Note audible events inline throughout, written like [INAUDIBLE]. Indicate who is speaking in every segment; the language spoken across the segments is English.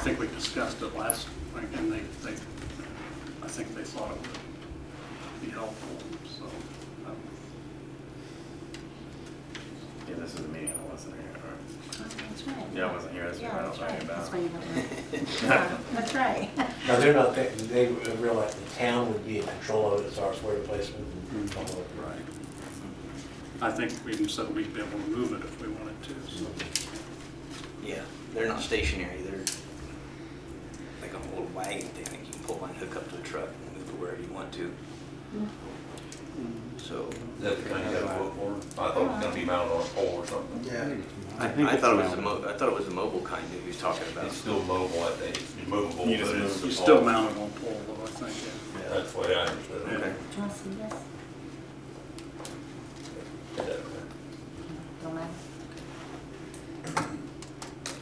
Speaker 1: think we discussed it last, week, and they, they, I think they thought it would be helpful, so. um,
Speaker 2: Yeah, this is a meeting, I wasn't here, or,
Speaker 3: That's right.
Speaker 2: yeah, I wasn't here, that's what
Speaker 3: Yeah,
Speaker 2: I don't
Speaker 3: that's
Speaker 2: know
Speaker 3: right. That's
Speaker 2: about. [LAUGHS]
Speaker 3: why you don't know. Yeah, That's right. [LAUGHS]
Speaker 4: Now, they're not, they, they realize the town would be in control of it as far as where to place it. and all of it.
Speaker 1: Right. I think we even said we'd be able to move it if we wanted to, so.
Speaker 5: Yeah, they're not stationary. They're like a little wagon thing that you can pull and hook up to a truck and move it wherever you want to. So
Speaker 6: Is that the kind you got a foot for? I thought it was gonna be mounted on a pole or something.
Speaker 5: yeah,
Speaker 2: I
Speaker 5: I,
Speaker 2: think
Speaker 5: I
Speaker 2: it's
Speaker 5: thought it was a
Speaker 2: mounted.
Speaker 5: mo- I thought it was a mobile kind that he was talking about.
Speaker 6: It's still mobile, I think, it's movable,
Speaker 2: You just
Speaker 6: but it's.
Speaker 2: move
Speaker 1: You
Speaker 6: a
Speaker 1: still
Speaker 6: pole.
Speaker 1: mount it on pole, though, I think, yeah.
Speaker 6: Yeah, That's the way I understood it.
Speaker 5: Okay.
Speaker 3: Do you want to see this? Don't matter.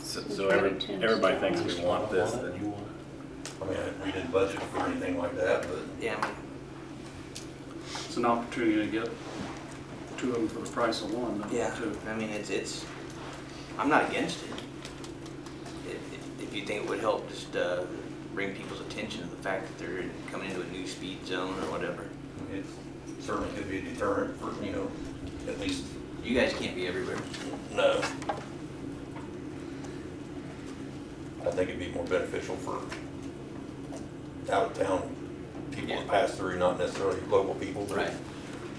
Speaker 2: So so every, everybody thinks we want this,
Speaker 4: You
Speaker 2: then
Speaker 4: want it?
Speaker 6: I mean, we didn't budget for anything like that, but
Speaker 5: Yeah, I mean,
Speaker 1: It's an opportunity to get two of them for the price of one, though,
Speaker 5: yeah.
Speaker 1: too.
Speaker 5: I mean, it's it's. I'm not against it. If, if, if you think it would help, just uh, bring people's attention to the fact that they're coming into a new speed zone or whatever.
Speaker 6: it certainly could be a deterrent for, you know, at least,
Speaker 5: You guys can't be everywhere.
Speaker 6: no. I think it'd be more beneficial for out-of-town people to
Speaker 5: Yeah.
Speaker 6: pass through, not necessarily local people, but.
Speaker 5: Right.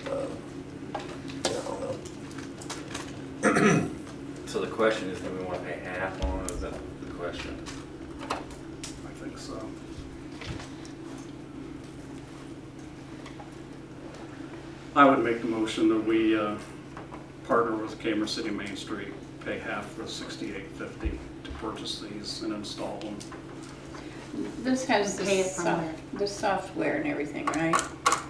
Speaker 6: uh, Yeah, I don't know.
Speaker 2: so the question is, do we want to pay half on, it? Is that the question?
Speaker 1: I think so. I would make the motion that we uh, partner with Cameron City Main Street, pay half for sixty-eight fifty to purchase these and install them.
Speaker 7: This has the
Speaker 3: Pay it from
Speaker 7: soft, the software and everything, right?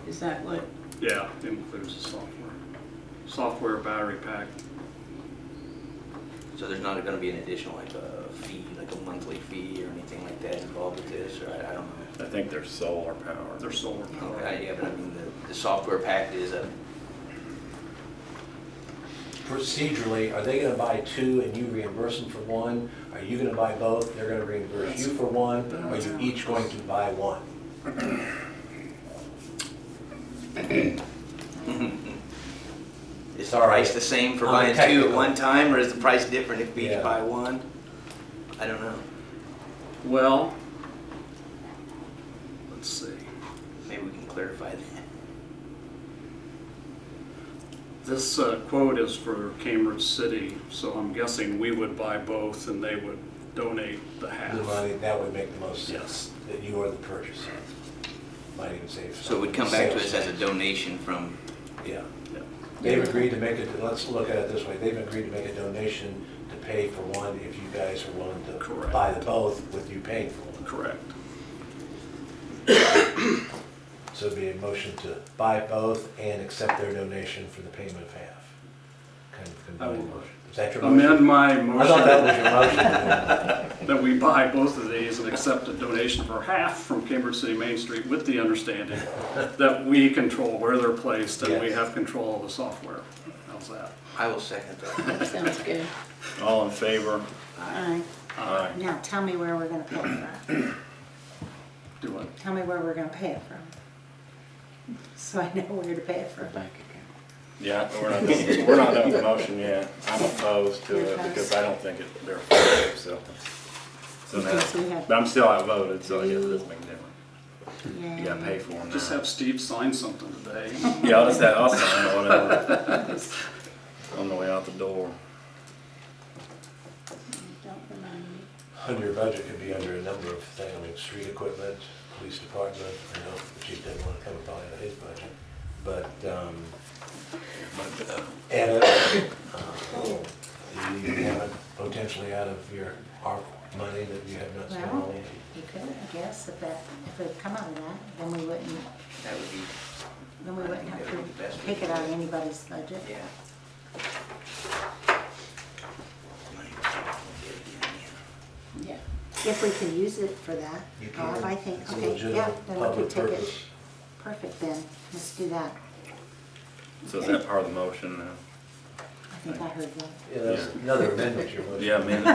Speaker 7: Is that what,
Speaker 1: Yeah, includes the software. Software, battery pack,
Speaker 5: So there's not going to be an additional like a fee, like a monthly fee or anything like that involved with this, or I, I don't know.
Speaker 2: I think they're solar power.
Speaker 1: their solar power.
Speaker 5: Okay, yeah, but I mean, the, the software pack is a, [LAUGHS]
Speaker 4: Procedurally, are they gonna buy two and you reimburse them for one? Are you gonna buy both, they're gonna reimburse you for one? Are you each going to buy one?
Speaker 5: is the
Speaker 4: All right.
Speaker 5: price the same for
Speaker 4: I'm
Speaker 5: buying two at
Speaker 4: technical.
Speaker 5: one time, or is the price different if we
Speaker 4: Yeah.
Speaker 5: each buy one? I don't know.
Speaker 1: Well, let's see.
Speaker 5: Maybe we can clarify that.
Speaker 1: This uh, quote is for Cambridge City, so I'm guessing we would buy both and they would donate the half.
Speaker 4: The money, that would make the most
Speaker 1: Yes.
Speaker 4: sense, that you are the purchaser. Might even save.
Speaker 5: So it would come back to us as a donation from,
Speaker 4: Yeah.
Speaker 1: Yeah.
Speaker 4: They've agreed to make it, let's look at it this way, they've agreed to make a donation to pay for one if you guys are willing to
Speaker 1: Correct.
Speaker 4: buy the both with you paying for one.
Speaker 1: Correct.
Speaker 4: So it'd be a motion to buy both and accept their donation for the payment of half. Kind of
Speaker 1: I will-
Speaker 4: combined motion. Is that your
Speaker 1: Amend
Speaker 4: motion?
Speaker 1: my
Speaker 4: I thought that
Speaker 1: motion
Speaker 4: was your motion.
Speaker 1: that we buy both of these and accept a donation for half from Cambridge City Main Street with the
Speaker 4: [LAUGHS]
Speaker 1: understanding that we control where they're placed and we
Speaker 4: Yes.
Speaker 1: have control of the software. How's that?
Speaker 5: I will second that.
Speaker 7: that sounds good.
Speaker 2: All in favor?
Speaker 3: All right.
Speaker 2: Aye.
Speaker 3: Now, tell me where we're gonna pay it from.
Speaker 1: Do it.
Speaker 3: Tell me where we're gonna pay it from. So I know where to pay it from.
Speaker 2: Yeah, we're not, doing- we're not doing the motion yet. I'm opposed to it because I don't think it, they're fair, so. So
Speaker 3: Okay, so we
Speaker 2: now,
Speaker 3: have-
Speaker 2: but I'm still outvoted, so I guess it doesn't make a difference. You gotta pay
Speaker 3: Yay.
Speaker 2: for them now.
Speaker 1: Just have Steve sign something today.
Speaker 4: [LAUGHS]
Speaker 2: Yeah, I'll just have, I'll sign it, whatever. On the way out the door.
Speaker 7: Don't remind me.
Speaker 4: Under budget could be under a number of things, like street equipment, police department, I know the chief didn't want to come by on his budget. But, um, and, uh, you have it potentially out of your ARP money that you have not spent
Speaker 3: Well,
Speaker 4: on yet.
Speaker 3: you could, I guess, if that, if it would come out of that, then we wouldn't,
Speaker 5: [LAUGHS] That would be,
Speaker 3: then we wouldn't have to pick it out of anybody's budget.
Speaker 5: yeah.
Speaker 7: Yeah.
Speaker 3: If we can use it for that,
Speaker 4: You
Speaker 3: or if
Speaker 4: can.
Speaker 3: oh, I think,
Speaker 4: It's a
Speaker 3: okay, yeah,
Speaker 4: legitimate
Speaker 3: then we
Speaker 4: public
Speaker 3: could take it.
Speaker 4: purpose.
Speaker 3: Perfect then, let's do that.
Speaker 2: So is that part of the motion now?
Speaker 3: I think I heard that.
Speaker 4: Yeah, that's another amendment you're looking at.
Speaker 2: Yeah, man,